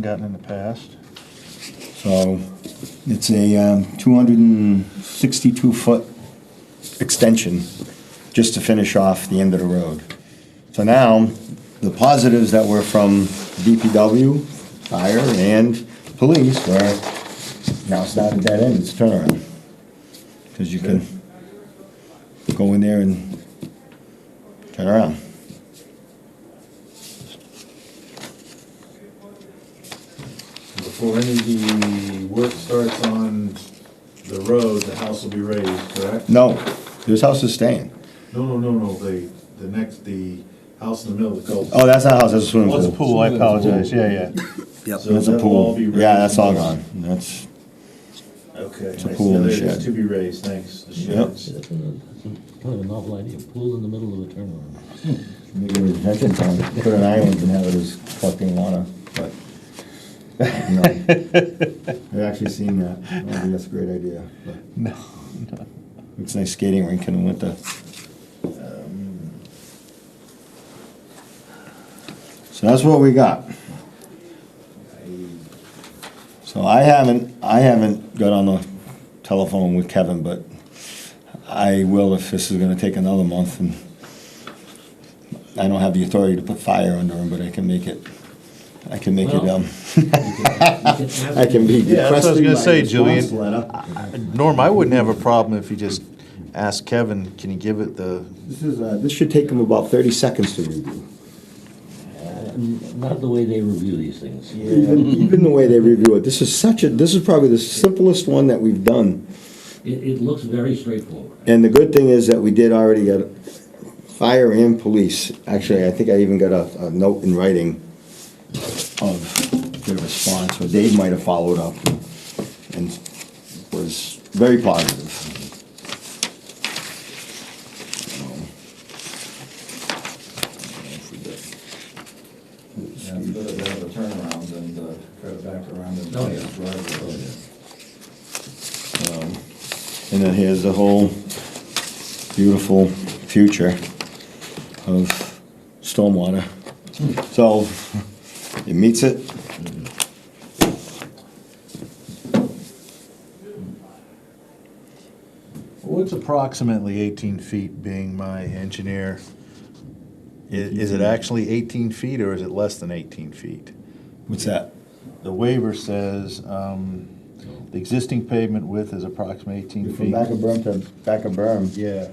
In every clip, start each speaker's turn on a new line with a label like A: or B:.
A: gotten in the past.
B: So it's a um, two hundred and sixty-two foot extension just to finish off the end of the road. So now, the positives that were from DPW, fire, and police were, now it's not a dead end, it's a turnaround. Because you can go in there and turn around.
C: Before any of the work starts on the road, the house will be raised, correct?
B: No, this house is staying.
C: No, no, no, no, the, the next, the house in the middle of the cul
B: Oh, that's not a house, that's a swimming
C: Oh, it's
B: pool.
C: a
A: Pool, I apologize, yeah, yeah.
C: Yep.
B: That's a pool. Yeah, that's all gone. That's,
C: Okay. It's
B: a pool and a shed.
C: To be raised, thanks, the
B: Yep.
C: sheds.
D: Yeah, that's a- that's a- Kind of a novel idea, pool in the middle of a turnaround.
B: maybe a retention pond, put an island and have it as collecting water, but, no. I've actually seen that. I think that's a great idea, but. No. It's a nice skating rink in the winter. Um, So that's what we got. So I haven't, I haven't got on the telephone with Kevin, but I will if this is gonna take another month and I don't have the authority to put fire under him, but I can make it, I can make it,
D: Well-
B: um, I can be
A: Yeah, that's what I was
B: requesting my
A: gonna say, Julian.
B: response letter.
A: Norm, I wouldn't have a problem if you just asked Kevin, can you give it the,
B: This is, uh, this should take him about thirty seconds to review.
D: Not the way they review these things.
B: Even, even the way they review it, this is such a, this is probably the simplest one that we've done.
D: It, it looks very straightforward.
B: And the good thing is that we did already get fire and police. Actually, I think I even got a, a note in writing of their response, or Dave might have followed up and was very positive.
C: Yeah, it's better to have a turnaround than to cut it uh, back around and
D: Oh, yeah.
C: drive it.
B: And then here's the whole beautiful future of stormwater. So, it meets it.
A: what's approximately eighteen feet being my engineer? I- Is it actually eighteen feet or is it less than eighteen feet?
B: What's that?
A: The waiver says, um, the existing pavement width is approximately eighteen
B: From
A: feet.
B: back of berm to back of berm.
A: Yeah.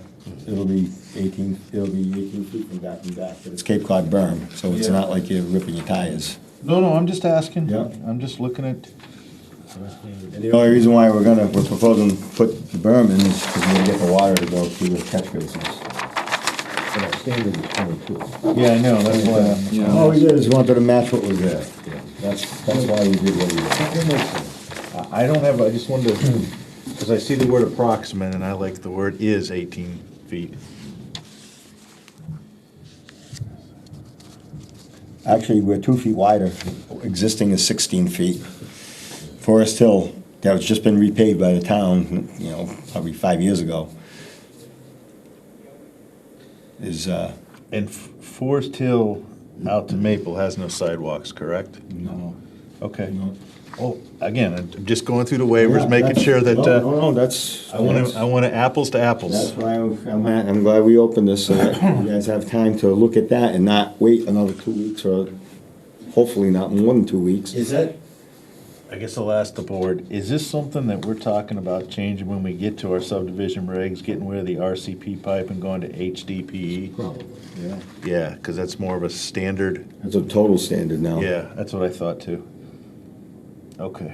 B: It'll be eighteen, it'll be eighteen feet from back and back, but it's Cape Cod berm, so it's
C: Yeah.
B: not like you're ripping your tires.
A: No, no, I'm just asking.
B: Yeah.
A: I'm just looking at,
B: And the only reason why we're gonna, we're proposing to put the berm in is because we're gonna get the water to go through the catch basins.
D: But our standard is twenty-two.
A: yeah, I know, that's why I'm.
B: All we did is wanted to match what was there. That's, that's why we did what we did.
A: I I don't have, I just wanted to, because I see the word approximate, and I like the word is 18 feet.
B: Actually, we're two feet wider. Existing is sixteen feet. Forest Hill, that was just been repaved by the town, you know, probably five years ago. Is, uh,
A: And F- Forest Hill out to Maple has no sidewalks, correct?
B: no.
A: Okay.
B: No.
A: Well, again, I'm just going through the waivers, making sure that,
B: No, no,
A: uh,
B: no, that's.
A: I want to, I
B: that's-
A: want to apples to
B: That's
A: apples.
B: why I'm, I'm ha- I'm glad we opened this, so that you guys have time to look at that and not wait another two weeks or hopefully not more than two weeks.
C: Is that?
A: I guess I'll ask the board, is this something that we're talking about changing when we get to our subdivision regs, getting rid of the RCP pipe and going to HDPE?
D: Probably.
C: Yeah.
A: E? Yeah, because that's more of a standard.
B: That's a total standard now.
A: Yeah, that's what I thought too. Okay.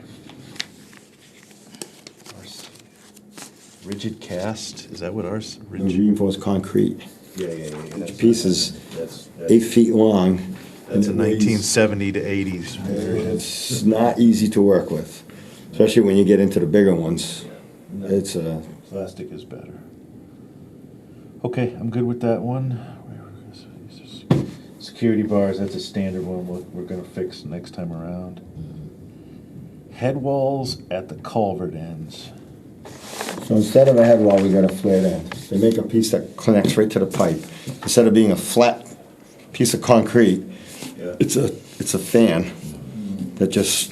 A: Rigid cast, is that what ours,
B: It was
A: rigid?
B: Reinforced concrete,
C: Yeah, yeah, yeah, yeah. that's-
B: pieces
C: That's,
B: eight
C: that's,
B: feet long.
A: That's a
B: and it weighs-
A: nineteen seventy to eighties.
B: It's not easy to work with, especially when you get into the bigger ones. It's uh, a,
A: Plastic is better. Okay, I'm good with that one. Where were we gonna say this is- Security bars, that's a standard one we're, we're gonna fix next time around. Head walls at the culvert ends.
B: so instead of a head wall, we got a flared end. They make a piece that connects right to the pipe. Instead of being a flat piece of concrete,
C: yeah.
B: it's a, it's a fan that just